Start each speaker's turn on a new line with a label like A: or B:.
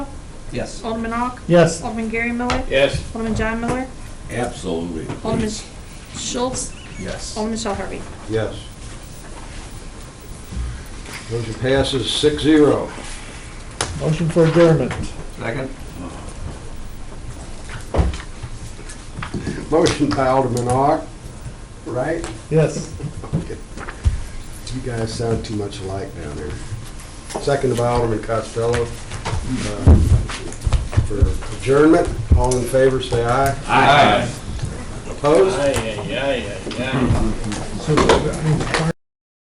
A: Yes.
B: Alderman Ock?
C: Yes.
B: Alderman Gary Miller?
D: Yes.
B: Alderman John Miller?
E: Absolutely.
B: Alderman Schultz?
A: Yes.
B: Alderman Shell Harvey?
F: Yes. Motion passes six zero.
C: Motion for adjournment.
A: Second?
F: Motion by Alderman Ock, right?
C: Yes.
F: You guys sound too much alike down there. Second by Alderman Costello. uh, For adjournment, all in favor, say aye.
D: Aye.
F: Opposed?
D: Aye, aye, aye, aye, aye.
C: So, I mean, fire-